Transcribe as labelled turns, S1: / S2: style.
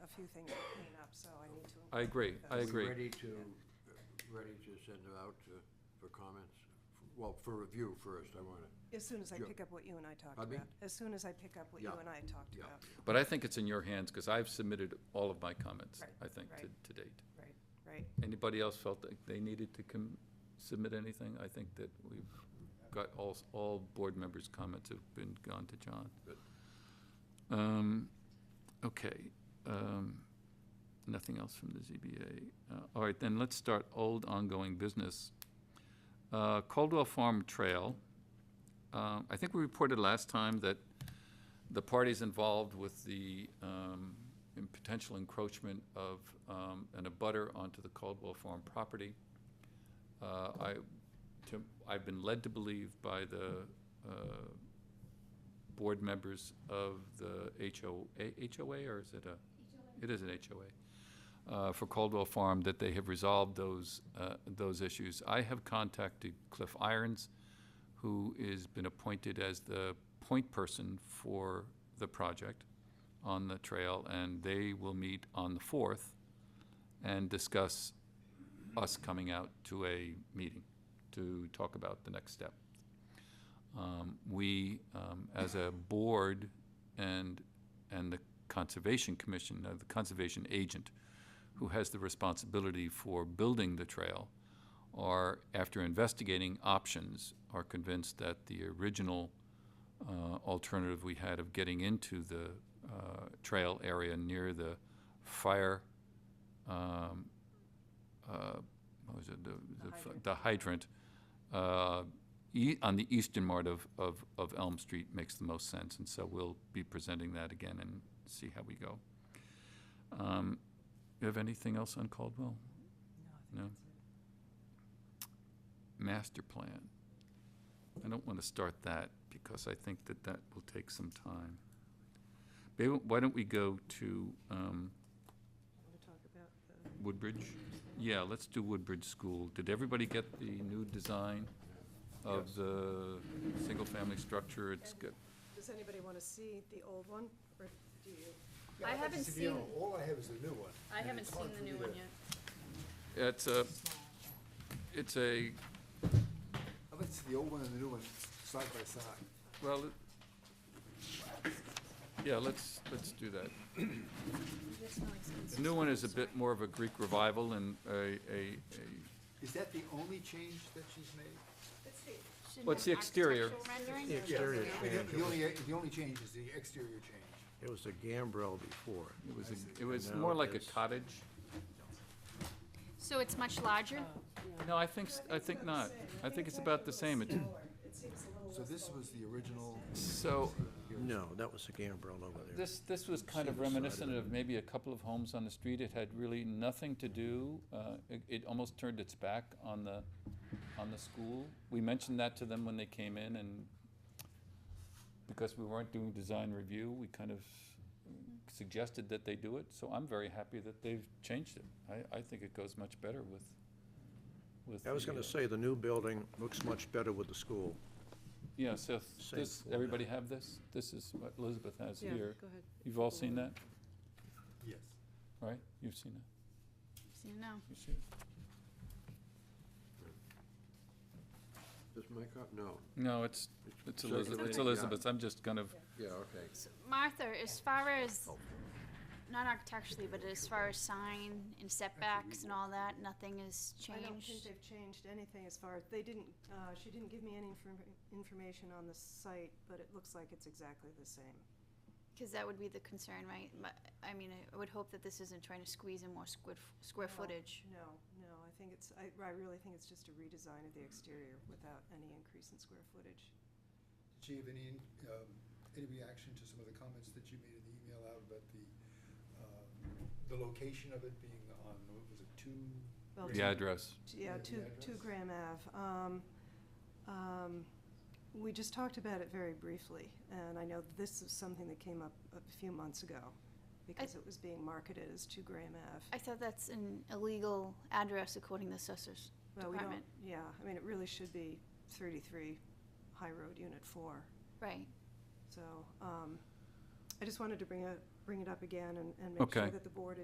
S1: few things to clean up, so I need to.
S2: I agree,
S1: include
S2: I
S1: those.
S2: agree.
S3: Ready to, ready to send it out to, for comments? Well, for review first, I wanna,
S1: As soon as I
S3: Sure.
S1: pick up what you and I talked
S3: Pardon me?
S1: about. As soon as I pick up what you
S3: Yeah.
S1: and I talked
S3: yeah.
S1: about.
S2: But I think it's in your hands, because I've submitted all of my comments,
S1: Right,
S2: I think, to,
S1: right.
S2: to date.
S1: Right, right.
S2: Anybody else felt that they needed to com- submit anything? I think that we've got all, s- all board members' comments have been gone to John.
S3: Good.
S2: Um, okay, um, nothing else from the ZBA. Uh, all right, then let's start old ongoing business. Uh, Caldwell Farm Trail. Uh, I think we reported last time that the parties involved with the um, in- potential encroachment of um, an abutter onto the Caldwell Farm property. Uh, I, to- I've been led to believe by the uh, board members of the HOA, HOA, or is it a? It is an HOA, uh, for Caldwell Farm, that they have resolved those, uh, those issues. I have contacted Cliff Irons, who has been appointed as the point person for the project on the trail, and they will meet on the fourth and discuss us coming out to a meeting to talk about the next step. Um, We, um, as a board and, and the Conservation Commission, uh, the Conservation Agent, who has the responsibility for building the trail, are, after investigating options, are convinced that the original uh, alternative we had of getting into the uh, trail area near the fire, um, uh, what was it, the-
S1: The
S2: the f-
S1: hydrant.
S2: the hydrant, uh, ea- on the eastern part of, of of Elm Street makes the most sense, and so we'll be presenting that again and see how we go. Um, You have anything else on Caldwell? No. master plan. I don't want to start that because I think that that will take some time. Maybe, why don't we go to um,
S1: Want to talk about the,
S2: Woodbridge? Yeah, let's do Woodbridge School. Did everybody get the new design of the single-family structure? It's good.
S1: does anybody want to see the old one, or do you?
S4: I haven't
S5: To be
S4: seen,
S5: honest, All I have is the new one.
S4: I
S5: and
S4: haven't
S5: it's hard
S4: seen the
S5: for me
S4: new
S5: to-
S4: one yet.
S2: It's a, it's a,
S5: I'd like to see the old one and the new one side by side.
S2: well, it- yeah, let's, let's do that.
S4: That's not expensive.
S2: The new one is a bit more of a Greek revival and a, a, a
S5: Is that the only change that she's made?
S4: Shouldn't
S2: What's
S4: have
S2: the exterior?
S4: architectural rendering?
S3: The exterior
S5: The
S3: change,
S5: the only, the only change is the exterior change.
S3: it was a gambrel before.
S2: It was,
S5: I
S2: a-
S5: see.
S2: it was
S3: now
S2: more like a
S3: it's-
S2: cottage.
S4: So it's much larger?
S2: No, I think, s- I think not. I think it's about the same. It-
S1: It seems a little
S5: So this was the original,
S2: So,
S3: No, that was a gambrel over there.
S2: this, this was kind of reminiscent of maybe a couple of homes on the street. It had really nothing to do, uh, it, it almost turned its back on the, on the school. We mentioned that to them when they came in and because we weren't doing design review, we kind of suggested that they do it. So I'm very happy that they've changed it. I, I think it goes much better with, with.
S6: I was
S2: the,
S6: gonna
S2: uh,
S6: say, the new building looks much better with the school.
S2: Yeah, so th-
S6: Same
S2: this,
S6: format.
S2: everybody have this? This is what Elizabeth has
S1: Yeah,
S2: here.
S1: go ahead.
S2: You've all seen that,
S5: yes.
S2: right? You've seen it,
S4: So no.
S2: you've seen it?
S3: Is my cop, no.
S2: No, it's, it's Elizabeth, it's Elizabeth, I'm just kind of,
S3: Yeah, okay.
S4: So Martha, as far as, not architecturally, but as far as sign and setbacks and all that, nothing has
S1: I don't think
S4: changed?
S1: they've changed anything as far, they didn't, uh, she didn't give me any inform- information on the site, but it looks like it's exactly the same.
S4: Because that would be the concern, right? But, I mean, I would hope that this isn't trying to squeeze in more squid, square
S1: No.
S4: footage.
S1: No, no, I think it's, I, I really think it's just a redesign of the exterior without any increase in square footage.
S5: Did she have any, um, any reaction to some of the comments that you made in the email out about the, um, the location of it being on, what was it, two?
S1: Well,
S2: the address.
S1: Yeah,
S5: Yeah,
S1: two,
S5: the
S1: two
S5: address.
S1: Graham Ave. Um, um, We just talked about it very briefly, and I know this is something that came up a few months ago, because it was being marketed as two Graham Ave.
S4: I thought that's an illegal address according to the assessors.
S1: Well, we don't-
S4: department.
S1: Yeah, I mean, it really should be thirty-three High Road, Unit four.
S4: Right.
S1: So, um, I just wanted to bring a, bring it up again and, and make sure
S2: Okay.
S1: that the board is